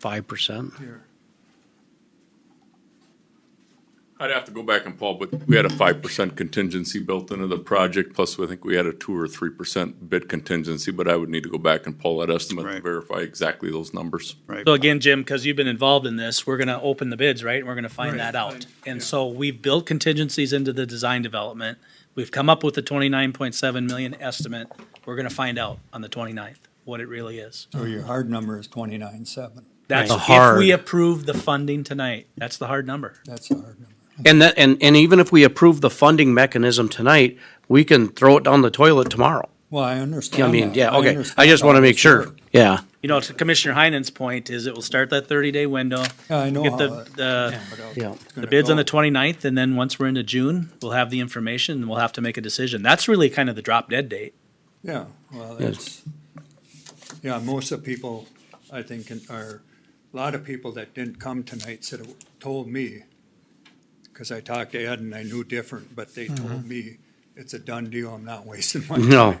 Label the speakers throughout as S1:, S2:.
S1: five percent.
S2: I'd have to go back and Paul, but we had a five percent contingency built into the project, plus I think we had a two or three percent bid contingency, but I would need to go back and pull that estimate and
S3: Right.
S2: verify exactly those numbers.
S3: Right.
S4: So again, Jim, because you've been involved in this, we're gonna open the bids, right? And we're gonna find that out. And so we've built contingencies into the design development. We've come up with the twenty-nine point seven million estimate. We're gonna find out on the 29th what it really is.
S5: So your hard number is twenty-nine, seven.
S4: That's
S1: The
S4: if
S1: hard-
S4: we approve the funding tonight. That's the hard number.
S5: That's a hard number.
S1: And that, and, and even if we approve the funding mechanism tonight, we can throw it down the toilet tomorrow.
S5: Well, I understand
S1: I mean,
S5: that.
S1: yeah, okay. I
S5: understand
S1: just want to
S5: how
S1: make
S5: this
S1: sure.
S5: works.
S1: Yeah.
S4: You know, to Commissioner Heinen's point is it will start that thirty-day window.
S5: Yeah, I know
S4: Get
S5: how it-
S4: the,
S5: But, uh,
S1: Yeah.
S5: it's
S4: the, the
S5: gonna
S4: bids on
S5: go.
S4: the 29th, and then once we're into June, we'll have the information and we'll have to make a decision. That's really kind of the drop dead date.
S5: Yeah, well,
S1: Yes.
S5: that's, yeah, most of the people, I think, can- are, a lot of people that didn't come tonight said, told me, because I talked to Ed and I knew different, but they told me, it's a done deal, I'm not wasting my time.
S1: No.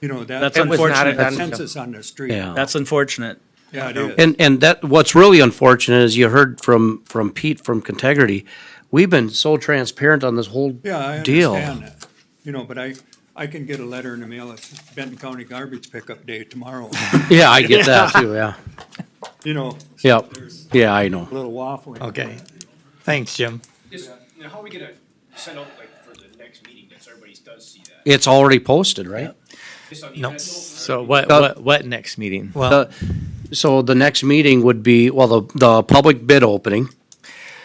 S5: You know, that.
S4: That's
S5: that was not a
S4: unfortunate. That's-
S5: Consensus on the street.
S1: Yeah.
S4: That's unfortunate.
S5: Yeah, it is.
S1: And, and that, what's really unfortunate is you heard from, from Pete from Contegrity, we've been so transparent on this whole
S5: Yeah, I
S1: deal.
S5: understand that. You know, but I, I can get a letter in the mail, it's Benton County Garbage Pickup Day tomorrow,
S1: Yeah, I get that too, yeah.
S5: you know. so
S1: Yep.
S5: There's
S1: Yeah, I know.
S5: a little waffling.
S6: Okay. Thanks, Jim.
S7: Is, now how are we gonna send out like for the next meeting, that everybody does see that?
S1: It's already posted, right?
S7: Just on the
S6: No.
S7: email?
S6: So what,
S1: Uh,
S6: what, what next meeting?
S1: The- So the next meeting would be, well, the, the public bid opening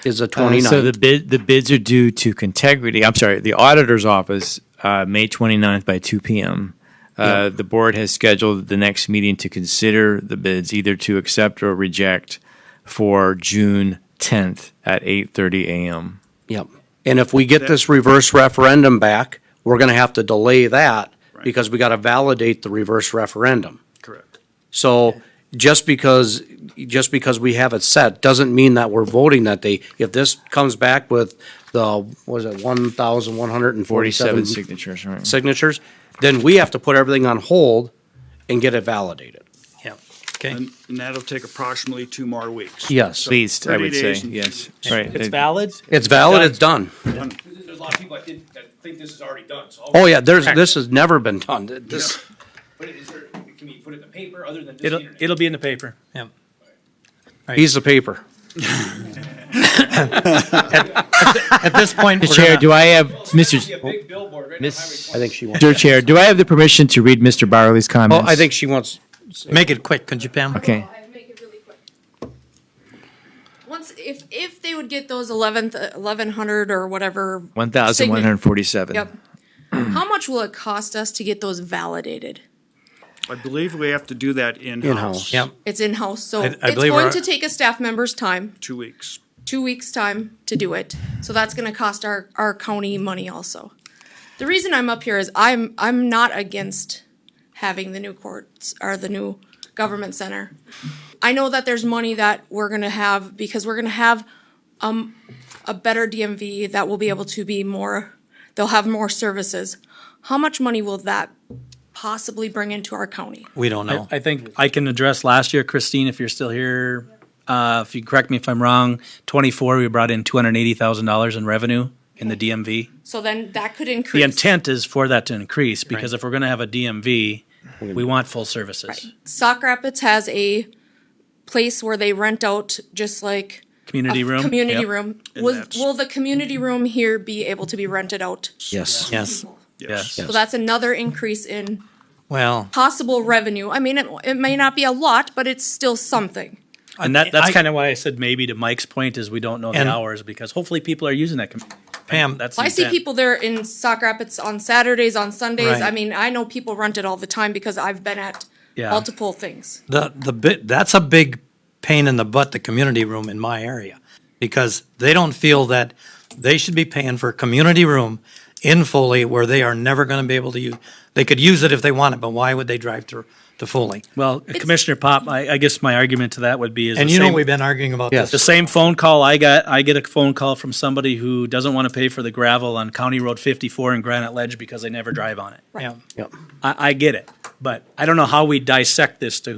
S1: is the
S6: Uh, So the
S1: 29th.
S6: bid, the bids are due to Contegrity, I'm sorry, the auditor's office, uh, May 29th by two PM. Uh, the board has scheduled the next meeting to consider the bids, either to accept or reject for June tenth at eight thirty AM.
S1: Yep. And if we get this reverse referendum back, we're gonna have to delay that because we gotta validate the reverse referendum.
S4: Correct.
S1: So just because, just because we have it set, doesn't mean that we're voting that day. If this comes back with the, what is it, one thousand one hundred and
S6: Forty-seven
S1: forty-seven mm-hmm.
S6: signatures, right?
S1: signatures, then we have to put everything on hold and get it validated.
S6: Okay.
S7: Um,
S8: And and that'll take approximately two more weeks.
S1: Yes.
S6: At least, I
S8: 30
S6: would say,
S8: days.
S6: yes, right.
S4: It's
S6: Uh,
S4: valid.
S1: It's valid, it's done.
S7: There's there's a lot of people that didn't, that think this is already done, so.
S1: Oh, yeah, there's, this has never been done. This,
S7: But is there, can we put it in the paper other than just the
S4: It'll,
S7: internet?
S4: it'll be in the paper.
S1: piece of paper.
S6: At this point, Mr. Chair, do I have,
S7: Well, it's not
S6: Mr.
S7: gonna be a big billboard right on
S6: Miss-
S7: Highway
S1: I think she wants.
S6: Dear Chair, do I have the permission to read Mr. Barley's
S1: Oh,
S6: comments?
S1: I think she wants,
S6: Make it quick, could you, Pam? Okay.
S9: I'll make it really quick. Once, if, if they would get those eleventh, eleven hundred or whatever.
S6: One thousand one hundred forty-seven.
S9: Yep. How much will it cost us to get those validated?
S8: I believe we have to do that
S1: In-house.
S8: in-house.
S1: Yep.
S9: It's in-house, so
S6: I- I
S9: it's
S6: believe
S9: going
S6: our-
S9: to take a staff member's time,
S8: Two weeks.
S9: two weeks' time to do it. So that's gonna cost our, our county money also. The reason I'm up here is I'm, I'm not against having the new courts or the new government center. I know that there's money that we're gonna have because we're gonna have, um, a better DMV that will be able to be more, they'll have more services. How much money will that possibly bring into our county?
S6: We don't
S10: Oh.
S4: I, I think I can address last year, Christine, if you're still here. Uh, if you correct me if I'm wrong, twenty-four, we brought in two hundred and eighty thousand dollars in revenue in the DMV.
S9: So then that could
S4: The
S9: increase.
S4: intent is for that to increase because if we're gonna have a DMV, we want full services.
S9: Sock Rapids has a place where they rent out just like a
S4: Community room.
S9: Oh, Community
S4: Yep.
S9: room.
S8: And
S9: Will,
S8: that's-
S9: will the community room here be able to be rented out?
S1: yes.
S6: Yes.
S4: Yes.
S9: So that's another increase in
S6: Well,
S9: possible revenue. I mean, it, it may not be a lot, but it's still something.
S4: And that, that's
S6: I-
S4: kind of why I said maybe to Mike's point is we don't know the
S6: And-
S4: hours because hopefully people are using that. com-
S6: Pam,
S4: That's. the
S9: Well, I see
S4: intent.
S9: people there in Sock Rapids on Saturdays, on Sundays.
S6: Right.
S9: I mean, I know people rent it all the time because I've been at
S4: Yeah.
S9: multiple things.
S10: The, the bit, that's a big pain in the butt, the community room in my area, because they don't feel that they should be paying for a community room in Foley where they are never gonna be able to use, they could use it if they want it, but why would they drive to, to Foley?
S4: Well, Commissioner Pop, I, I guess my argument to that would be is.
S10: And
S4: the
S10: you know,
S4: same-
S10: we've been arguing about this.
S4: The same phone call I got, I get a phone call from somebody who doesn't want to pay for the gravel on County Road fifty-four in Granite Ledge because they never drive on it.
S10: Yeah.
S1: Yep.
S4: I, I get it, but I don't know how we dissect this to